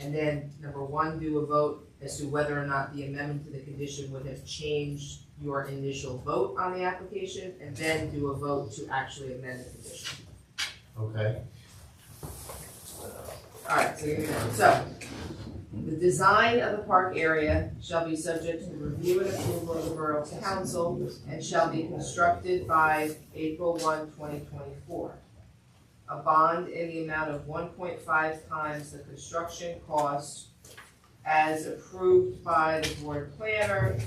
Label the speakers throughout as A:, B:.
A: And then number one, do a vote as to whether or not the amendment to the condition would have changed your initial vote on the application, and then do a vote to actually amend the condition.
B: Okay,
A: Alright, so here we go. So, the design of the park area shall be subject to review and approval of the Borough Council and shall be constructed by April 1, 2024. A bond in the amount of one point five times the construction cost as approved by the board planner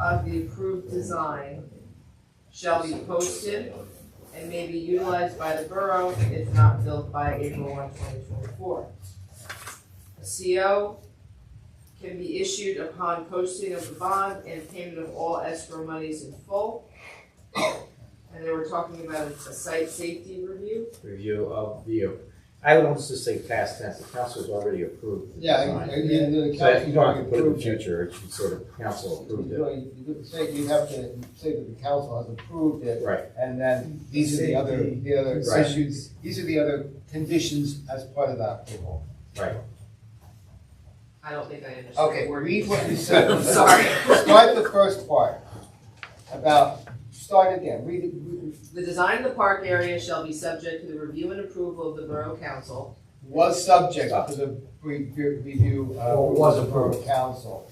A: of the approved design shall be posted and may be utilized by the borough if not built by April 1, 2024. A CO can be issued upon posting of the bond and payment of all escrow monies in full. And then we're talking about a a site safety review.
C: review of the, I would almost just say past tense, the council's already approved. the
D: Yeah, and-
C: design.
D: and then the
C: So that
D: council.
C: you don't have to put it in the
D: approved it.
C: future, it should sort of, council
D: You
C: approved it.
D: know, you could say, you have to say that the council has approved it,
C: Right,
D: and then these are the other, the other
C: Right.
D: issues, these are the other conditions as part of that approval.
C: right.
A: I don't think I understand.
D: Okay,
A: We're-
D: read what you said.
A: I'm sorry.
D: Start the first part about, start again, read, it- read it.
A: The design of the park area shall be subject to the review and approval of the Borough Council.
D: was subject to the re- re- review uh, of.
B: Or was
D: Borough Council.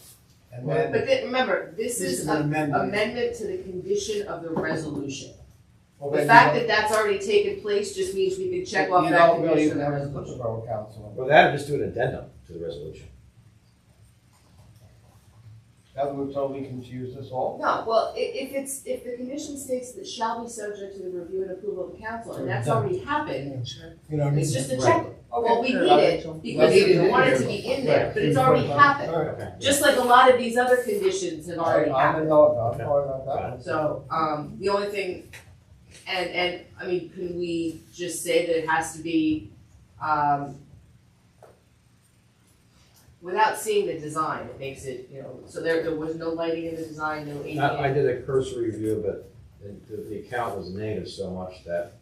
D: And
A: But
D: then,
A: then, remember, this
B: This
A: is
B: is
A: an
B: amendment.
A: amendment to the condition of the resolution.
D: well,
A: The
D: then
A: fact
D: you
A: that that's already taken place just means we can check
D: don't,
A: off
D: you
A: that
D: don't really
A: condition
D: even
A: of the
D: have to put the
A: resolution.
D: Borough Council. in.
C: Well, that, just do an addendum to the resolution.
D: That would totally confuse us all.
A: No, well, i- if it's, if the condition states that shall be subject to the review and approval of the council, and that's already happened,
B: you know,
A: it's just a check. Well, we
D: Okay.
A: need it, because
D: That's
A: we
D: it.
A: want it to be in there,
D: Right.
A: but it's already happened.
D: All right.
C: Okay.
A: Just like a lot of these other conditions have already
D: I-
A: happened.
D: I know about, I know about
C: Got
D: that one.
A: So, um, the only thing, and, and, I mean, can we just say that it has to be, um, without seeing the design, it makes it, you know, so there, there was no lighting in the design, no
C: I, I
A: ADA.
C: did a cursory review, but the, the- the account was negative so much that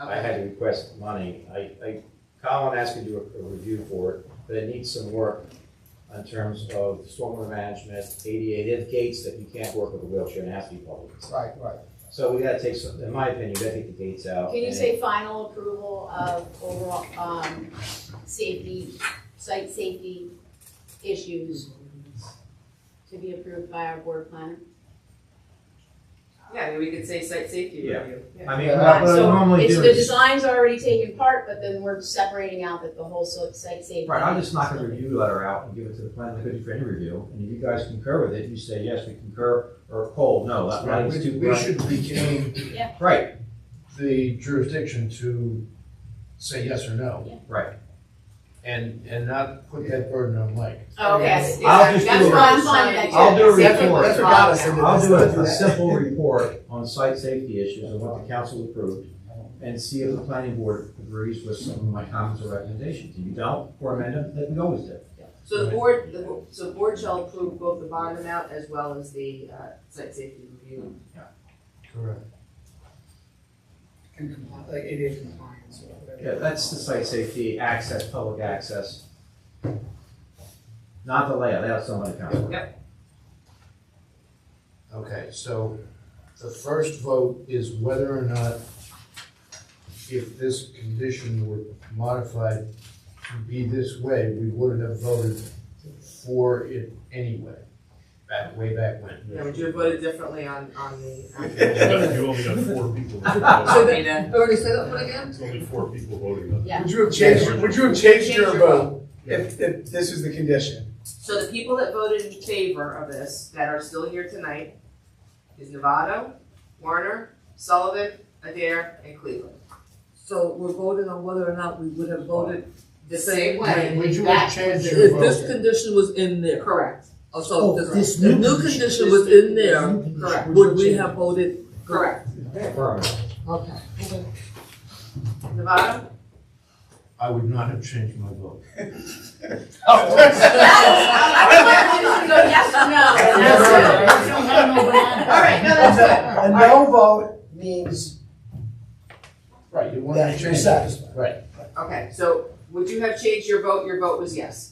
C: I had to request money. I, I, Colin asked me to do a, a review for it, but it needs some work in terms of stormwater management, ADA, they have gates that you can't work with a wheelchair and it has to be public.
D: Right, right.
C: So we gotta take some, in my opinion, we gotta take the gates out.
E: Can you
C: and-
E: say final approval of overall, um, safety, site safety issues to be approved by our board planner?
A: Yeah, I mean, we could say site safety
C: Yeah.
A: review.
C: I mean,
D: Yeah,
C: what I-
D: but
C: what I
E: so
C: normally
E: It's,
C: do
E: the
C: is,
E: design's already taken part, but then we're separating out that the whole so- site safety.
C: right, I'll just knock a review letter out and give it to the planning committee for any review, and if you guys concur with it, you say, yes, we concur, or cold, no, that writing's
B: We
C: too
B: we
C: bright.
B: should retain
C: Right,
B: the jurisdiction to say yes or no.
C: right.
B: And, and not put that burden on Mike.
E: Oh,
A: Yes,
E: Okay,
A: exactly.
C: I'll just
A: That's
C: do a-
A: what I'm trying to.
C: I'll do a
A: That's what-
C: report.
A: that's what got us into
C: I'll
A: this.
C: do a a simple report on site safety issues and what the council approved, and see if the planning board agrees with some of my comments or recommendations. If you don't, or amend them, they can go with it.
A: So the board, the, bo- so the board shall approve both the bond amount as well as the, uh, site safety review.
B: Correct.
F: and compli- like ADA compliance or whatever.
C: Yeah, that's the site safety, access, public access. Not the layout, that's on the council.
B: Okay, so the first vote is whether or not if this condition were modified to be this way, we would have voted for it anyway, back, way back when.
A: Yeah, would you have voted differently on, on the? application?
G: You only got four people.
A: So
G: voting.
A: the,
F: Already say that one again?
G: It's only four people voting on it.
E: Yeah.
F: Would you have changed, would you have changed your
A: Change your
F: vote if, if this was the condition?
A: So the people that voted in favor of this, that are still here tonight, is Novato, Warner, Sullivan, Adair, and Cleveland.
H: So we're voting on whether or not we would have voted
A: The same way.
B: Would you have changed your
H: if this
B: vote?
H: condition was in there.
A: Correct,
H: Oh, so if this, if new condition was in there,
A: correct,
H: would we have voted?
A: correct.
C: Affirmative.
H: Okay.
A: Novato?
B: I would not have changed my vote.
D: Oh.
A: Yes, I would like you to go yes or no. That's
D: We
A: it.
D: don't have no banana.
A: All right, no, that's good.
I: A no vote means
B: Right, you wanted
I: that
B: to
I: you're
B: change.
I: satisfied.
B: Right.
A: Okay, so Would you have changed your vote? Your vote was yes.